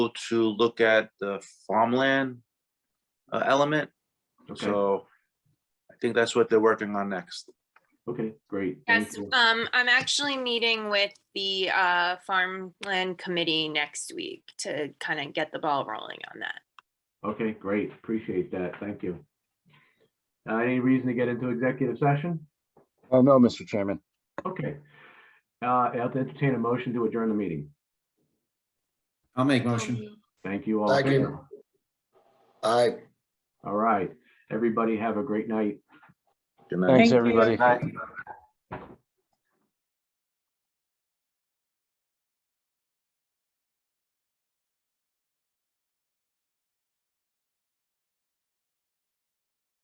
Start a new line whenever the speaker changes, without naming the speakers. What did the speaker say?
to look at the farmland uh, element.
Okay.
So I think that's what they're working on next.
Okay, great. Thank
Yes,
you.
um, I'm actually meeting with the uh farmland committee next week to kind of get the ball rolling on that.
Okay, great. Appreciate that. Thank you. Uh, Any reason to get into executive session?
Oh, no, Mr. Chairman.
Okay. Uh, I'll entertain a motion to adjourn the meeting.
I'll make motion.
Thank you all. in
Second.
favor?
Aye.
All right. Everybody have a great night.
Good night.
Thanks,
you.
everybody.